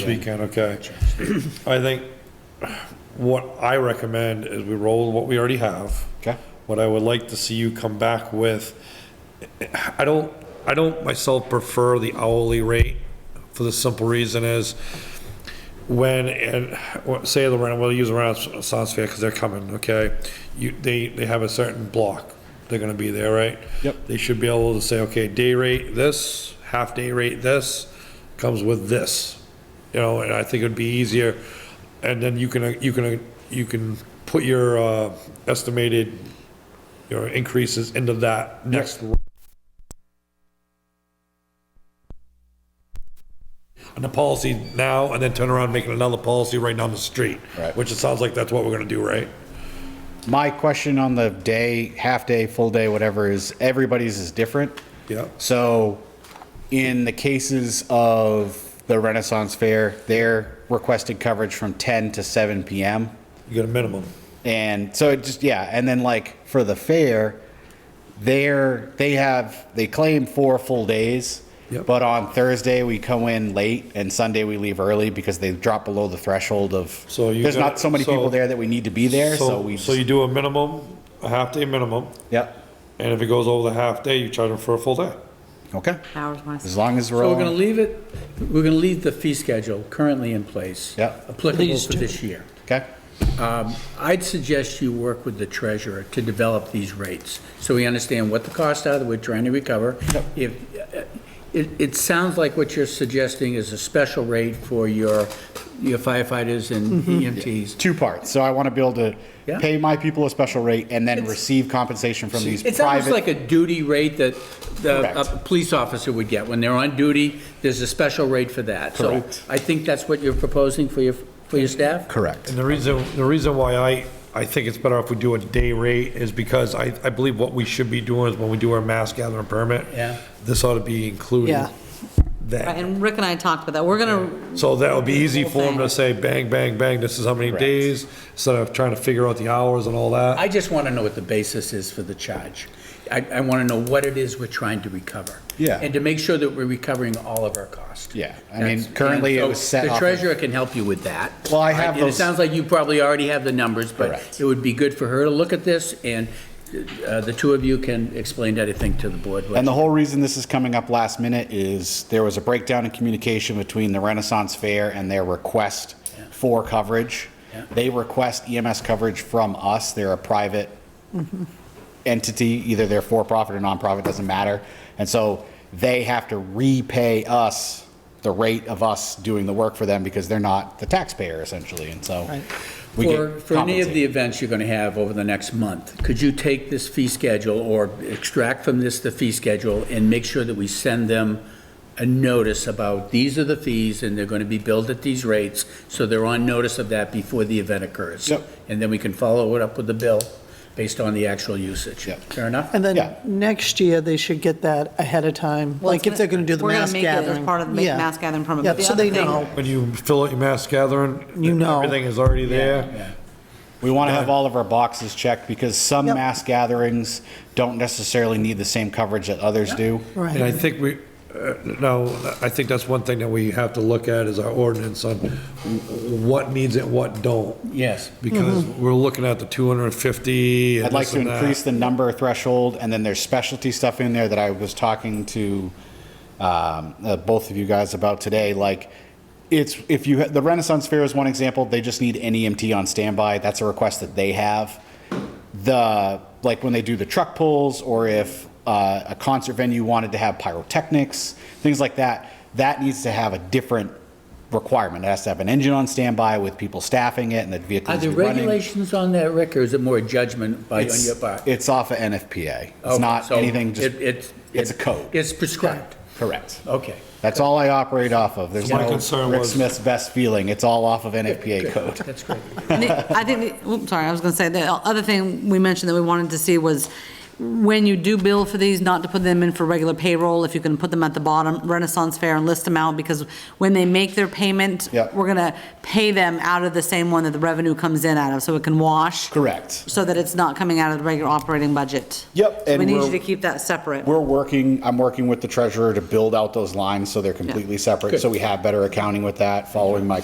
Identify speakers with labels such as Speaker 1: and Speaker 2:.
Speaker 1: Speaking, okay. I think what I recommend is we roll what we already have.
Speaker 2: Okay.
Speaker 1: What I would like to see you come back with, I don't, I don't myself prefer the hourly rate for the simple reason is when, and, well, say the rent, we'll use around Sounds Fair because they're coming, okay? You, they, they have a certain block. They're gonna be there, right?
Speaker 2: Yep.
Speaker 1: They should be able to say, okay, day rate this, half day rate this, comes with this. You know, and I think it'd be easier, and then you can, uh, you can, you can put your, uh, estimated, your increases into that next. And the policy now, and then turn around making another policy right down the street.
Speaker 2: Right.
Speaker 1: Which it sounds like that's what we're gonna do, right?
Speaker 2: My question on the day, half day, full day, whatever, is everybody's is different.
Speaker 1: Yeah.
Speaker 2: So in the cases of the Renaissance Fair, they're requested coverage from 10 to 7 PM.
Speaker 1: You get a minimum.
Speaker 2: And so it just, yeah, and then like for the fair, they're, they have, they claim four full days.
Speaker 1: Yep.
Speaker 2: But on Thursday, we come in late and Sunday we leave early because they drop below the threshold of,
Speaker 1: So you
Speaker 2: there's
Speaker 1: got-
Speaker 2: not so many
Speaker 1: so-
Speaker 2: people there that we need to be there, so we.
Speaker 1: So you do a minimum, a half day minimum,
Speaker 2: Yep,
Speaker 1: and if it goes over the half day, you charge them for a full day.
Speaker 2: okay,
Speaker 3: Hours once.
Speaker 2: as long as we're
Speaker 4: So
Speaker 2: all.
Speaker 4: we're gonna leave it, we're gonna leave the fee schedule currently in place.
Speaker 2: Yep.
Speaker 4: Applicable for this year.
Speaker 2: Okay,
Speaker 4: I'd suggest you work with the treasurer to develop these rates, so we understand what the costs are that we're trying to recover. If, uh, it, it sounds like what you're suggesting is a special rate for your your firefighters and
Speaker 2: Mm-hmm.
Speaker 4: E EMTs.
Speaker 2: two parts, so I wanna be able to
Speaker 4: Yeah.
Speaker 2: pay my people a special rate and then receive compensation from these
Speaker 4: It's almost like
Speaker 2: private.
Speaker 4: a duty rate that the, a
Speaker 2: Correct.
Speaker 4: police officer would get. When they're on duty, there's a special rate for that.
Speaker 2: Correct.
Speaker 4: So I think that's what you're proposing for your, for your staff?
Speaker 2: Correct,
Speaker 1: And the reason, the reason why I, I think it's better if we do a day rate is because I, I believe what we should be doing is when we do our mass gathering permit.
Speaker 4: Yeah.
Speaker 1: This ought to be included
Speaker 5: Yeah.
Speaker 3: Right,
Speaker 1: then.
Speaker 3: And Rick and I talked about that. We're gonna,
Speaker 1: So that would be easy for them to say, bang, bang, bang, this is how many
Speaker 2: Correct.
Speaker 1: days, instead of trying to figure out the hours and all that.
Speaker 4: I just want to know what the basis is for the charge. I, I want to know what it is we're trying to recover.
Speaker 2: Yeah.
Speaker 4: And to make sure that we're recovering all of our costs.
Speaker 2: Yeah, I mean,
Speaker 4: That's-
Speaker 2: currently it
Speaker 4: and
Speaker 2: was
Speaker 4: so
Speaker 2: set off
Speaker 4: The
Speaker 2: of-
Speaker 4: treasurer can help you with that.
Speaker 2: Well, I
Speaker 4: Right?
Speaker 2: have
Speaker 4: And it
Speaker 2: those-
Speaker 4: sounds like you probably already have the numbers, but
Speaker 2: Correct.
Speaker 4: it would be good for her to look at this, and uh, the two of you can explain anything to the board.
Speaker 2: and the whole reason this is coming up last minute is there was a breakdown in communication between the Renaissance Fair and their request for coverage.
Speaker 4: Yeah.
Speaker 2: They request EMS coverage from us, they're a private
Speaker 4: Mm-hmm.
Speaker 2: entity, either they're for-profit or nonprofit, doesn't matter. And so they have to repay us the rate of us doing the work for them because they're not the taxpayer essentially, and so. we get
Speaker 4: For, for any of
Speaker 2: compensated.
Speaker 4: the events you're going to have over the next month, could you take this fee schedule or extract from this the fee schedule and make sure that we send them a notice about these are the fees and they're going to be billed at these rates, so they're on notice of that before the event occurs?
Speaker 2: Yep.
Speaker 4: And then we can follow it up with the bill based on the actual usage.
Speaker 2: Yep.
Speaker 4: Fair enough?
Speaker 5: And
Speaker 2: Yeah.
Speaker 5: then next year, they should get that ahead of time,
Speaker 3: Well,
Speaker 5: like
Speaker 3: it's
Speaker 5: if they're going to do the
Speaker 3: gonna- we're gonna
Speaker 5: mass
Speaker 3: make it as
Speaker 5: gathering.
Speaker 3: part of the
Speaker 5: Yeah.
Speaker 3: mass gathering permit.
Speaker 5: Yeah,
Speaker 3: But the
Speaker 5: so
Speaker 3: other
Speaker 5: they
Speaker 3: thing-
Speaker 5: know.
Speaker 1: When you fill out your mass gathering.
Speaker 5: You know.
Speaker 1: Everything is already there.
Speaker 2: We want to have all of our boxes checked because some
Speaker 5: Yep.
Speaker 2: mass gatherings don't necessarily need the same coverage that others do.
Speaker 1: And I
Speaker 5: Right.
Speaker 1: think we, uh, no, I think that's one thing that we have to look at is our ordinance on what needs it, what don't.
Speaker 4: Yes.
Speaker 1: Because
Speaker 5: Mm-hmm.
Speaker 1: we're looking at the 250 and
Speaker 2: I'd like
Speaker 1: this
Speaker 2: to
Speaker 1: and that.
Speaker 2: increase the number threshold, and then there's specialty stuff in there that I was talking to um, uh, both of you guys about today, like, it's, if you, ha- the Renaissance Fair is one example, they just need an EMT on standby, that's a request that they have. The, like, when they do the truck pulls, or if uh, a concert venue wanted to have pyrotechnics, things like that, that needs to have a different requirement, it has to have an engine on standby with people staffing it and the
Speaker 4: Are
Speaker 2: vehicles
Speaker 4: there
Speaker 2: be running.
Speaker 4: regulations on that, Rick, or is it more judgment by, on
Speaker 2: It's-
Speaker 4: your part?
Speaker 2: It's off of NFPA. It's
Speaker 4: Okay,
Speaker 2: not
Speaker 4: so
Speaker 2: anything, just,
Speaker 4: it- it's-
Speaker 2: it's a code.
Speaker 4: It's prescribed.
Speaker 2: Correct.
Speaker 4: Okay.
Speaker 2: That's all I operate off of. There's
Speaker 1: So my
Speaker 2: no
Speaker 1: concern
Speaker 2: Rick
Speaker 1: was-
Speaker 2: Smith's best feeling. It's all off of NFPA code.
Speaker 4: That's great.
Speaker 3: And the- I think, the- oops, sorry, I was gonna say, the other thing we mentioned that we wanted to see was when you do bill for these, not to put them in for regular payroll, if you can put them at the bottom, Renaissance Fair, and list them out, because when they make their payment,
Speaker 2: Yeah.
Speaker 3: we're gonna pay them out of the same one that the revenue comes in out of, so it can wash.
Speaker 2: Correct.
Speaker 3: So that it's not coming out of the regular operating budget.
Speaker 2: Yep,
Speaker 3: So
Speaker 2: and
Speaker 3: we need you
Speaker 2: we're-
Speaker 3: to keep that separate.
Speaker 2: We're working, I'm working with the treasurer to build out those lines so they're completely separate, so
Speaker 4: Good.
Speaker 2: we have better accounting with that, following my